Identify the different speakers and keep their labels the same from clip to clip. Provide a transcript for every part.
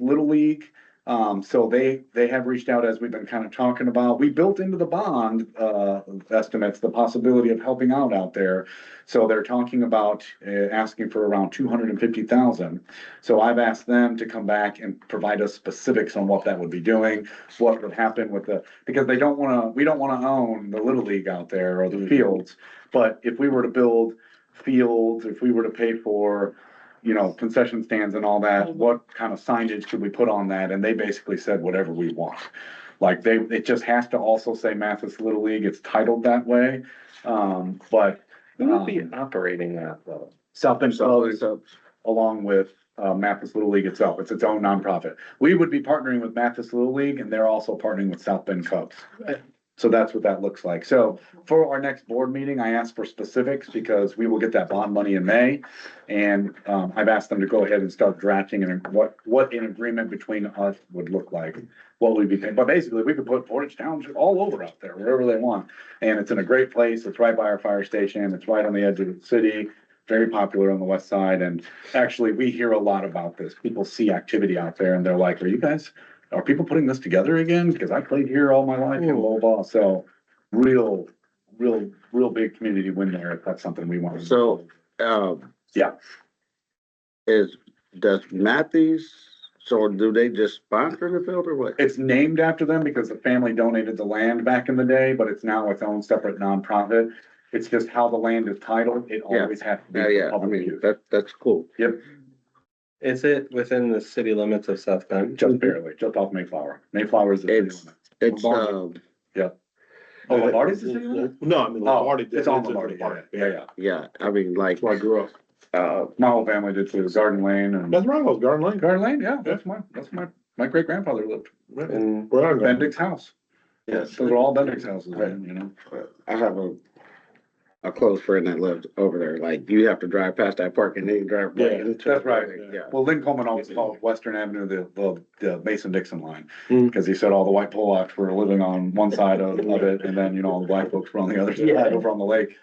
Speaker 1: Little League. Um, so they, they have reached out as we've been kind of talking about. We built into the bond, uh, estimates, the possibility of helping out out there. So they're talking about, uh, asking for around two hundred and fifty thousand. So I've asked them to come back and provide us specifics on what that would be doing, what would happen with the, because they don't wanna, we don't wanna own the Little League out there or the fields. But if we were to build fields, if we were to pay for, you know, concession stands and all that, what kind of signage could we put on that? And they basically said whatever we want. Like they, it just has to also say Mathis Little League, it's titled that way. Um, but
Speaker 2: Who would be operating that though?
Speaker 1: South Bend Club is along with uh, Mathis Little League itself. It's its own nonprofit. We would be partnering with Mathis Little League and they're also partnering with South Bend Cubs.
Speaker 2: Right.
Speaker 1: So that's what that looks like. So for our next board meeting, I asked for specifics because we will get that bond money in May. And um, I've asked them to go ahead and start drafting and what, what an agreement between us would look like. What we'd be paying, but basically we could put Portage Township all over out there, wherever they want. And it's in a great place. It's right by our fire station. It's right on the edge of the city. Very popular on the west side and actually, we hear a lot about this. People see activity out there and they're like, are you guys, are people putting this together again? Cause I played here all my life in Lowball, so real, real, real big community win there. If that's something we want.
Speaker 3: So, um.
Speaker 1: Yeah.
Speaker 3: Is, does Matthews, so do they just sponsor the field or what?
Speaker 1: It's named after them because the family donated the land back in the day, but it's now its own separate nonprofit. It's just how the land is titled. It
Speaker 3: Yeah.
Speaker 1: always has to be.
Speaker 3: Uh, Yeah,
Speaker 1: for
Speaker 3: yeah, I
Speaker 1: public
Speaker 3: mean,
Speaker 1: use.
Speaker 3: that, that's cool.
Speaker 2: Is it within the city limits of South Bend?
Speaker 1: Just barely, just off Mayflower. Mayflower is the. city
Speaker 3: It's-
Speaker 1: limit.
Speaker 3: It's,
Speaker 4: Lombardi.
Speaker 3: um,
Speaker 1: Oh, Lombardi's the city limit?
Speaker 4: No, I mean,
Speaker 1: Oh,
Speaker 4: Lombardi.
Speaker 1: it's on Lombardi. Yeah, yeah, yeah.
Speaker 3: yeah, I mean, like,
Speaker 4: That's where I grew up.
Speaker 3: uh,
Speaker 1: My whole family did too, Garden Lane and.
Speaker 4: That's right, I was Garden Lane.
Speaker 1: Garden Lane, yeah, that's my, that's my, my great grandfather lived,
Speaker 4: Where
Speaker 2: And
Speaker 4: I grew up.
Speaker 1: Bendick's house.
Speaker 3: Yes.
Speaker 1: Those are all Bendick's houses, right, you know?
Speaker 3: I have a, a close friend that lived over there, like, you have to drive past that park and then you drive
Speaker 4: Yeah,
Speaker 3: right into.
Speaker 1: that's
Speaker 3: the
Speaker 1: right.
Speaker 3: building, Yeah.
Speaker 1: Well, Lynn Coleman always called Western Avenue the, the, the Mason Dixon line.
Speaker 2: Mm.
Speaker 1: Cause he said all the white Polacks were living on one side of, of it, and then, you know, all the black folks were on the other
Speaker 2: Yeah.
Speaker 1: side, over on the lake.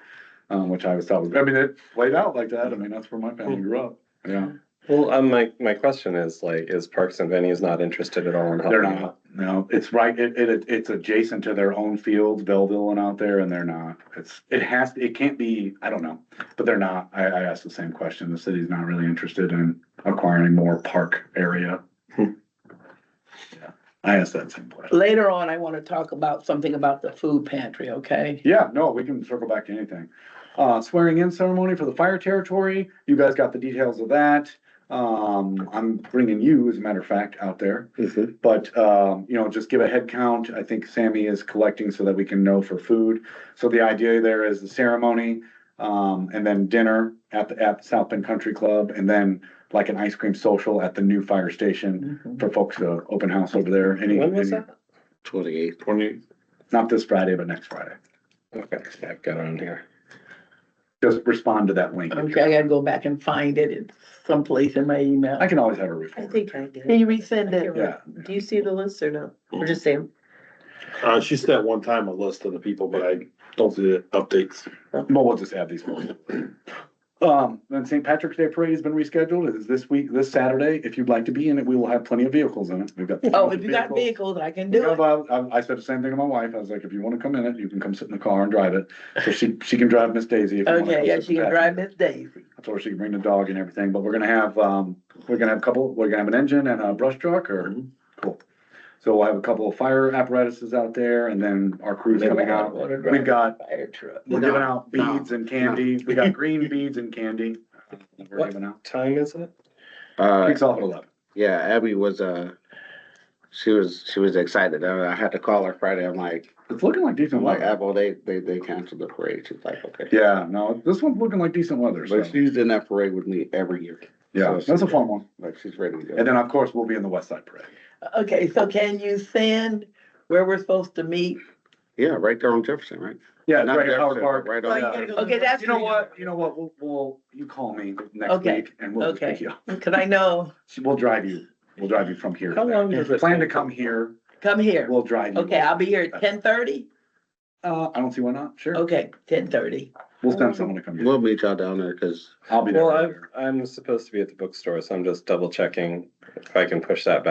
Speaker 1: Um, which I was telling, I mean, it played out like that, I mean, that's where my family grew up, yeah.
Speaker 2: well, um, my my question is like, is Parks and Venues not interested at all in helping?
Speaker 1: They're
Speaker 2: out?
Speaker 1: not, no, it's right, it, it, it's adjacent to their own fields, Belleville and out there, and they're not. It's, it has, it can't be, I don't know, but they're not, I, I asked the same question, the city's not really interested in acquiring more park area.
Speaker 2: Hmm.
Speaker 1: Yeah, I asked that same question.
Speaker 5: Later on, I want to talk about something about the food pantry, okay?
Speaker 1: Yeah, no, we can circle back to anything. Uh, swearing in ceremony for the fire territory, you guys got the details of that. Um, I'm bringing you, as a matter of fact, out there.
Speaker 3: Mhm.
Speaker 1: But, um, you know, just give a head count. I think Sammy is collecting so that we can know for food. So the idea there is the ceremony, um, and then dinner at the, at South Bend Country Club, and then like an ice cream social at the new fire station
Speaker 5: Mm-hmm.
Speaker 1: for folks to open house over there. Any,
Speaker 2: When was
Speaker 1: any-
Speaker 2: that?
Speaker 3: Twenty-eight,
Speaker 4: Twenty,
Speaker 1: not this Friday, but next Friday.
Speaker 2: Okay, I've got it on here.
Speaker 1: Just respond to that link. if
Speaker 5: Okay, I
Speaker 1: you're-
Speaker 5: gotta go back and find it. It's someplace in my email.
Speaker 1: I can always have a report.
Speaker 6: think I did.
Speaker 5: Can you resend
Speaker 6: I can't
Speaker 5: it?
Speaker 1: Yeah,
Speaker 6: Do you see the list or no? Or just Sam?
Speaker 4: uh, she said one time a list of the people, but I don't see the updates.
Speaker 1: but we'll just add these. Um, then St. Patrick's Day Parade has been rescheduled. It is this week, this Saturday. If you'd like to be in it, we will have plenty of vehicles in it. We've got.
Speaker 5: Oh, if you got
Speaker 1: vehicles.
Speaker 5: vehicles, I can do
Speaker 1: Yeah,
Speaker 5: it.
Speaker 1: but I, I said the same thing to my wife. I was like, if you wanna come in it, you can come sit in the car and drive it. So she, she can drive Miss Daisy. if you wanna come
Speaker 5: Okay, yeah,
Speaker 1: sit
Speaker 5: she
Speaker 1: in
Speaker 5: can
Speaker 1: the
Speaker 5: drive
Speaker 1: back.
Speaker 5: Miss Daisy.
Speaker 1: Or she can bring the dog and everything, but we're gonna have, um, we're gonna have a couple, we're gonna have an engine and a brush truck or,
Speaker 5: Mm-hmm.
Speaker 1: cool. So we'll have a couple of fire apparatuses out there and then our crew's coming out. We've got,
Speaker 5: Fire truck.
Speaker 1: we're giving out beads and candy. We got green beads and candy. uh, that We're
Speaker 2: What?
Speaker 1: giving out.
Speaker 2: Time is it?
Speaker 3: uh,
Speaker 1: Kicks off at eleven.
Speaker 3: Yeah, Abby was, uh, she was, she was excited. I I had to call her Friday. I'm like,
Speaker 1: It's looking like decent
Speaker 3: I'm like,
Speaker 1: weather.
Speaker 3: Abel, they, they, they canceled the parade. She's like, okay.
Speaker 1: Yeah, no, this one's looking like decent weather, so,
Speaker 3: But she's in that parade with me every year.
Speaker 1: yeah, that's a fun one.
Speaker 3: Like, she's ready to go.
Speaker 1: And then, of course, we'll be in the West Side Parade.
Speaker 5: Okay, so can you send where we're supposed to meet?
Speaker 3: Yeah, right there on Jefferson, right?
Speaker 1: Yeah,
Speaker 3: Not
Speaker 1: right at Howard
Speaker 3: Jefferson,
Speaker 1: Park.
Speaker 3: but Right
Speaker 6: Oh, you
Speaker 3: on.
Speaker 6: gotta go.
Speaker 5: Okay, that's.
Speaker 1: You know what, you know what, we'll, we'll, you call me next
Speaker 5: Okay,
Speaker 1: week and we'll just pick
Speaker 5: okay.
Speaker 1: you up.
Speaker 5: Cause I know,
Speaker 1: She- We'll drive you, we'll drive you from here.
Speaker 2: How
Speaker 1: to there.
Speaker 2: long does it
Speaker 1: Plan to
Speaker 2: take?
Speaker 1: come here,
Speaker 5: come here.
Speaker 1: we'll drive you.
Speaker 5: Okay, I'll be here at ten thirty?
Speaker 1: Uh, I don't see why not, sure,
Speaker 5: Okay, ten thirty.
Speaker 1: we'll send someone to come here,
Speaker 3: We'll meet y'all down there, cause
Speaker 1: I'll be there.
Speaker 2: Well, I'm, I'm supposed to be at the bookstore, so I'm just double checking if I can push that back